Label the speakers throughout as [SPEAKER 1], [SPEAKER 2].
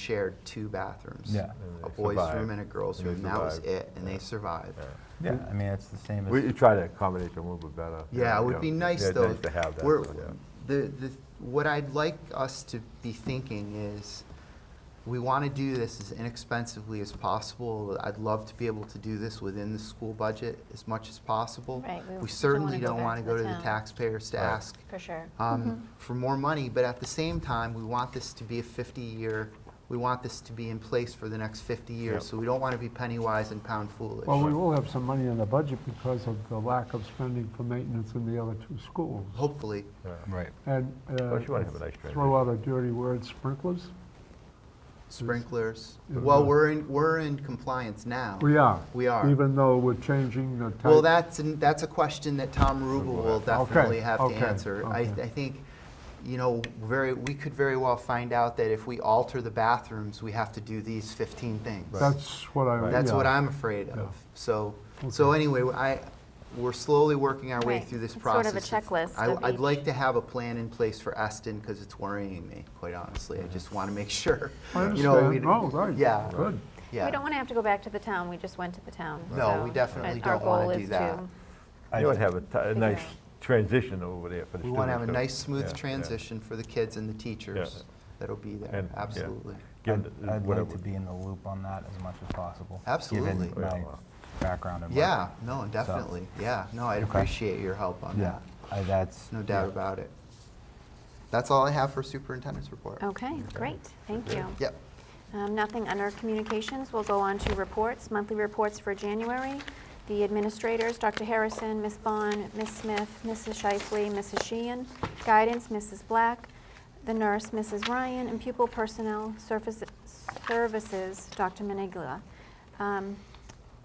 [SPEAKER 1] shared two bathrooms.
[SPEAKER 2] Yeah.
[SPEAKER 1] A
[SPEAKER 3] they
[SPEAKER 1] boys'
[SPEAKER 3] survived.
[SPEAKER 1] room and a girls'
[SPEAKER 3] And they
[SPEAKER 1] room. That was
[SPEAKER 3] survived.
[SPEAKER 1] it, and they survived.
[SPEAKER 2] Yeah, I mean, it's the same as.
[SPEAKER 3] We try to accommodate them a little bit better.
[SPEAKER 1] Yeah, it would be nice though.
[SPEAKER 3] Nice to have that.
[SPEAKER 1] We're-
[SPEAKER 3] so, yeah.
[SPEAKER 1] The, the, what I'd like us to be thinking is, we want to do this as inexpensively as possible. I'd love to be able to do this within the school budget as much as possible.
[SPEAKER 4] Right, we
[SPEAKER 1] We
[SPEAKER 4] don't
[SPEAKER 1] certainly
[SPEAKER 4] wanna go
[SPEAKER 1] don't
[SPEAKER 4] back
[SPEAKER 1] want to
[SPEAKER 4] to
[SPEAKER 1] go to
[SPEAKER 4] the
[SPEAKER 1] the
[SPEAKER 4] town.
[SPEAKER 1] taxpayers to
[SPEAKER 3] Right.
[SPEAKER 1] ask
[SPEAKER 4] For sure.
[SPEAKER 1] um, for more money, but at the same time, we want this to be a 50-year, we want this to be in place for the next 50 years, so we don't want to be penny wise and pound foolish.
[SPEAKER 5] Well, we will have some money in the budget because of the lack of spending for maintenance in the other two schools.
[SPEAKER 1] Hopefully,
[SPEAKER 2] Right.
[SPEAKER 5] And uh,
[SPEAKER 3] Plus you wanna have a nice
[SPEAKER 5] throw out a dirty word, sprinklers.
[SPEAKER 1] sprinklers.
[SPEAKER 5] Yeah.
[SPEAKER 1] Well, we're in, we're in compliance now.
[SPEAKER 5] We are.
[SPEAKER 1] We are.
[SPEAKER 5] Even though we're changing the type.
[SPEAKER 1] Well, that's, an- that's a question that Tom Rubel will definitely have to
[SPEAKER 5] okay,
[SPEAKER 1] answer. I,
[SPEAKER 5] okay.
[SPEAKER 1] I think, you know, very, we could very well find out that if we alter the bathrooms, we have to do these 15 things.
[SPEAKER 5] That's what I.
[SPEAKER 1] That's
[SPEAKER 5] yeah.
[SPEAKER 1] what I'm afraid of. So, so
[SPEAKER 5] Okay.
[SPEAKER 1] anyway, I, we're slowly working our way
[SPEAKER 4] Right.
[SPEAKER 1] through this
[SPEAKER 4] It's sort
[SPEAKER 1] process.
[SPEAKER 4] of a checklist
[SPEAKER 1] I-
[SPEAKER 4] of
[SPEAKER 1] I'd like
[SPEAKER 4] each.
[SPEAKER 1] to have a plan in place for Eston because it's worrying me, quite honestly. I just want to make sure.
[SPEAKER 5] I
[SPEAKER 1] you know,
[SPEAKER 5] understand.
[SPEAKER 1] we-
[SPEAKER 5] Oh, right.
[SPEAKER 1] Yeah.
[SPEAKER 5] Good.
[SPEAKER 1] Yeah.
[SPEAKER 4] We don't want to have to go back to the town, we just went to the town.
[SPEAKER 1] No,
[SPEAKER 4] so-
[SPEAKER 1] we definitely
[SPEAKER 4] but our
[SPEAKER 1] don't wanna
[SPEAKER 4] goal
[SPEAKER 1] do
[SPEAKER 4] is
[SPEAKER 1] that.
[SPEAKER 3] You would have a ti- a
[SPEAKER 4] Figure
[SPEAKER 3] nice
[SPEAKER 4] out.
[SPEAKER 3] transition over there for the students.
[SPEAKER 1] We want to have a
[SPEAKER 3] so-
[SPEAKER 1] nice,
[SPEAKER 3] yeah,
[SPEAKER 1] smooth
[SPEAKER 3] yeah.
[SPEAKER 1] transition for the kids and the teachers that'll be there,
[SPEAKER 3] And- yeah.
[SPEAKER 1] absolutely.
[SPEAKER 3] Give
[SPEAKER 2] I'd,
[SPEAKER 3] them the-
[SPEAKER 2] I'd like
[SPEAKER 3] whatever.
[SPEAKER 2] to be in the loop on that as much as possible.
[SPEAKER 1] Absolutely.
[SPEAKER 2] Given my
[SPEAKER 3] Yeah.
[SPEAKER 2] background and.
[SPEAKER 1] Yeah,
[SPEAKER 2] work.
[SPEAKER 1] no,
[SPEAKER 2] So,
[SPEAKER 1] definitely, yeah. No, I'd
[SPEAKER 2] Okay.
[SPEAKER 1] appreciate your help on
[SPEAKER 2] Yeah,
[SPEAKER 1] that,
[SPEAKER 2] I, that's.
[SPEAKER 1] no doubt about it. That's all I have for superintendent's report.
[SPEAKER 4] Okay, great, thank you.
[SPEAKER 1] Yep.
[SPEAKER 4] Um, Nothing under communications, we'll go on to reports, monthly reports for January. The administrators, Dr. Harrison, Ms. Bond, Ms. Smith, Mrs. Shifley, Mrs. Sheehan, guidance, Mrs. Black, the nurse, Mrs. Ryan, and pupil personnel surface- services, Dr. Manigla. Um,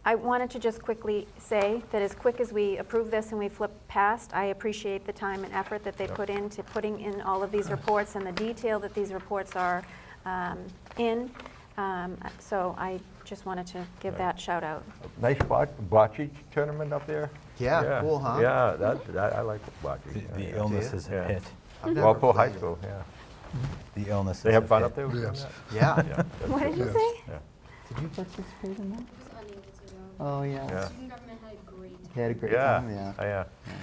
[SPEAKER 4] I wanted to just quickly say that as quick as we approve this and we flip past, I appreciate the time and effort that they put into putting in all of these reports and the detail that these reports are um, in. Um, So I just wanted to give that shout out.
[SPEAKER 3] Nice bot- bocce tournament up there.
[SPEAKER 1] Yeah, cool, huh?
[SPEAKER 3] Yeah, that, that- I like bocce.
[SPEAKER 2] The-
[SPEAKER 3] yeah,
[SPEAKER 2] The
[SPEAKER 3] yeah.
[SPEAKER 2] illness is
[SPEAKER 3] Yeah.
[SPEAKER 2] a hit.
[SPEAKER 1] I've never
[SPEAKER 3] Walpole High
[SPEAKER 1] played.
[SPEAKER 3] School, yeah.
[SPEAKER 2] The illness is.
[SPEAKER 3] They
[SPEAKER 2] a
[SPEAKER 3] have fun
[SPEAKER 2] hit.
[SPEAKER 3] up there? Yes.
[SPEAKER 1] Yeah.
[SPEAKER 3] Yeah.
[SPEAKER 4] What did you say?
[SPEAKER 3] Yeah.
[SPEAKER 1] Did you participate in that?
[SPEAKER 6] was unable to go.
[SPEAKER 1] Oh, yeah.
[SPEAKER 3] Yeah.
[SPEAKER 6] Student government had a great
[SPEAKER 1] You had a great
[SPEAKER 3] Yeah, Oh,
[SPEAKER 1] time, yeah.
[SPEAKER 3] yeah.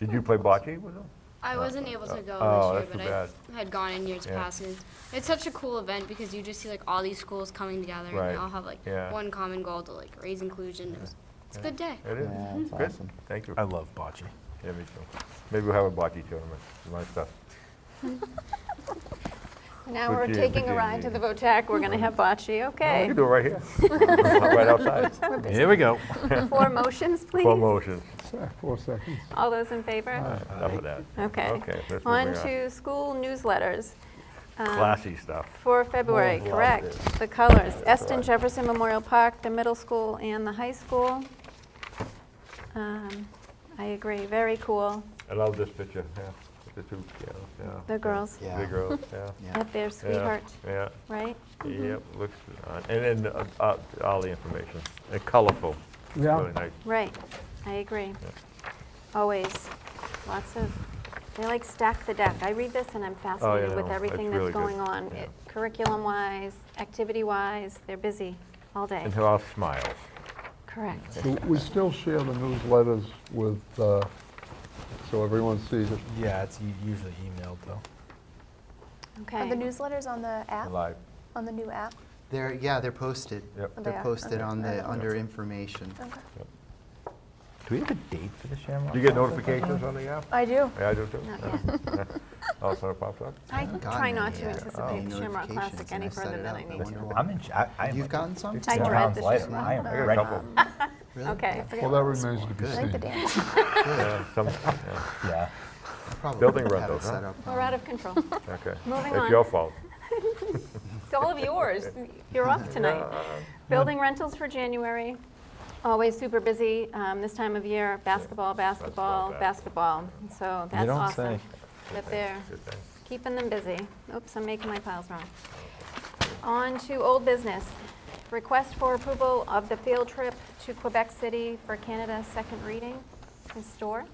[SPEAKER 3] Did you play bocce with them?
[SPEAKER 6] I wasn't able to go
[SPEAKER 3] Oh,
[SPEAKER 6] this
[SPEAKER 3] that's
[SPEAKER 6] year,
[SPEAKER 3] too
[SPEAKER 6] but I had gone in years
[SPEAKER 3] Yeah.
[SPEAKER 6] past. And it's such a cool event because you just see like all these schools coming together and
[SPEAKER 3] Right.
[SPEAKER 6] they all have like
[SPEAKER 3] Yeah.
[SPEAKER 6] one common goal to like raise inclusion. It was, it's a good day.
[SPEAKER 3] It is.
[SPEAKER 1] Yeah, it's
[SPEAKER 3] Good.
[SPEAKER 1] awesome.
[SPEAKER 3] Thank you.
[SPEAKER 2] I love bocce.
[SPEAKER 3] Yeah, me too. Maybe we'll have a bocce tournament, my stuff.
[SPEAKER 4] Now
[SPEAKER 3] Good
[SPEAKER 4] we're
[SPEAKER 3] year,
[SPEAKER 4] taking
[SPEAKER 3] good
[SPEAKER 4] a
[SPEAKER 3] year,
[SPEAKER 4] ride
[SPEAKER 3] yeah.
[SPEAKER 4] to the VOTAC, we're going to have bocce,
[SPEAKER 3] We
[SPEAKER 4] okay.
[SPEAKER 3] can do it right here. Right outside.
[SPEAKER 2] Here we go.
[SPEAKER 4] Four motions, please.
[SPEAKER 3] Four motions.
[SPEAKER 5] Four seconds.
[SPEAKER 4] All those in favor?
[SPEAKER 3] Enough of that.
[SPEAKER 4] Okay.
[SPEAKER 3] Okay, let's
[SPEAKER 4] On
[SPEAKER 3] move on.
[SPEAKER 4] to school newsletters. Um,
[SPEAKER 3] Classy stuff.
[SPEAKER 4] For February,
[SPEAKER 3] Love
[SPEAKER 4] correct.
[SPEAKER 3] this.
[SPEAKER 4] The colors,
[SPEAKER 3] Right.
[SPEAKER 4] Eston Jefferson Memorial Park, the middle school and the high school. Um, I agree, very cool,
[SPEAKER 3] I love this picture, yeah. The two, yeah, yeah.
[SPEAKER 4] the
[SPEAKER 3] yeah.
[SPEAKER 4] girls
[SPEAKER 1] Yeah.
[SPEAKER 3] The girls, yeah.
[SPEAKER 1] Yeah.
[SPEAKER 4] at their
[SPEAKER 3] yeah,
[SPEAKER 4] sweeheart,
[SPEAKER 3] Yeah,
[SPEAKER 4] right?
[SPEAKER 3] yep, looks, uh, and then uh, uh, all the information. They're colorful.
[SPEAKER 5] Yeah.
[SPEAKER 3] Really nice.
[SPEAKER 4] Right, I agree. Always, lots of, they like stack the deck. I read this and I'm fascinated
[SPEAKER 3] Oh, yeah,
[SPEAKER 4] with
[SPEAKER 3] no,
[SPEAKER 4] everything
[SPEAKER 3] it's
[SPEAKER 4] that's
[SPEAKER 3] really good.
[SPEAKER 4] going on.
[SPEAKER 3] Yeah.
[SPEAKER 4] It- Curriculum-wise, activity-wise, they're busy all day.
[SPEAKER 3] And they're all smiles.
[SPEAKER 4] Correct.
[SPEAKER 5] Do We still share the newsletters with, uh, so everyone sees it.
[SPEAKER 2] Yeah, it's u- usually emailed though.
[SPEAKER 7] Are
[SPEAKER 4] Okay.
[SPEAKER 7] the newsletters on the app?
[SPEAKER 3] Live.
[SPEAKER 7] On the new app?
[SPEAKER 1] They're, yeah, they're posted.
[SPEAKER 3] Yep.
[SPEAKER 7] They
[SPEAKER 1] They're
[SPEAKER 7] are?
[SPEAKER 1] posted
[SPEAKER 7] Okay.
[SPEAKER 1] on
[SPEAKER 7] I
[SPEAKER 1] the,
[SPEAKER 7] don't
[SPEAKER 1] under information.
[SPEAKER 7] Okay.
[SPEAKER 2] Do we have a date for the Shamrock?
[SPEAKER 3] Do you get
[SPEAKER 2] Festival?
[SPEAKER 3] notifications on the app?
[SPEAKER 7] I do.
[SPEAKER 3] Yeah, Oh, I do too.
[SPEAKER 4] Not
[SPEAKER 3] Also pops up?
[SPEAKER 4] I
[SPEAKER 1] haven't
[SPEAKER 4] try
[SPEAKER 1] gotten
[SPEAKER 4] not
[SPEAKER 1] any
[SPEAKER 4] to
[SPEAKER 1] yet. Oh.
[SPEAKER 4] anticipate the Shamrock
[SPEAKER 1] Notifications,
[SPEAKER 4] Classic
[SPEAKER 1] and I
[SPEAKER 4] any
[SPEAKER 1] set
[SPEAKER 4] further
[SPEAKER 1] it
[SPEAKER 4] than
[SPEAKER 1] up.
[SPEAKER 4] I
[SPEAKER 1] I
[SPEAKER 4] need
[SPEAKER 1] wonder
[SPEAKER 4] to.
[SPEAKER 1] why.
[SPEAKER 2] I'm in, ch- I, I am.
[SPEAKER 1] You've
[SPEAKER 2] like
[SPEAKER 1] gotten some?
[SPEAKER 2] 15
[SPEAKER 4] I tried
[SPEAKER 2] rounds
[SPEAKER 4] this
[SPEAKER 2] later.
[SPEAKER 4] just
[SPEAKER 2] I am
[SPEAKER 3] I got a
[SPEAKER 2] ready.
[SPEAKER 3] couple.
[SPEAKER 1] Really?
[SPEAKER 4] Okay.
[SPEAKER 5] Well, that remains to be
[SPEAKER 1] Good.
[SPEAKER 7] I like the
[SPEAKER 5] seen.
[SPEAKER 7] dance.
[SPEAKER 3] Yeah, some- yeah,
[SPEAKER 2] Yeah.
[SPEAKER 1] I probably
[SPEAKER 3] Building
[SPEAKER 1] have
[SPEAKER 3] run
[SPEAKER 1] it
[SPEAKER 3] those, huh?
[SPEAKER 1] set up
[SPEAKER 4] We're
[SPEAKER 1] on-
[SPEAKER 4] out of control.
[SPEAKER 3] Okay.
[SPEAKER 4] Moving
[SPEAKER 3] It's
[SPEAKER 4] on.
[SPEAKER 3] your fault.
[SPEAKER 4] It's all of yours. You're off tonight.
[SPEAKER 3] uh,
[SPEAKER 4] Building rentals for January, always super busy um, this time of year, basketball, basketball, basketball. So that's
[SPEAKER 2] don't
[SPEAKER 4] awesome.
[SPEAKER 2] say.
[SPEAKER 4] That they're
[SPEAKER 3] Good thing.
[SPEAKER 4] keeping them busy. Oops, I'm making my piles wrong. On to old business. Request for approval of the field trip to Quebec City for Canada, second reading. Ms. Storr?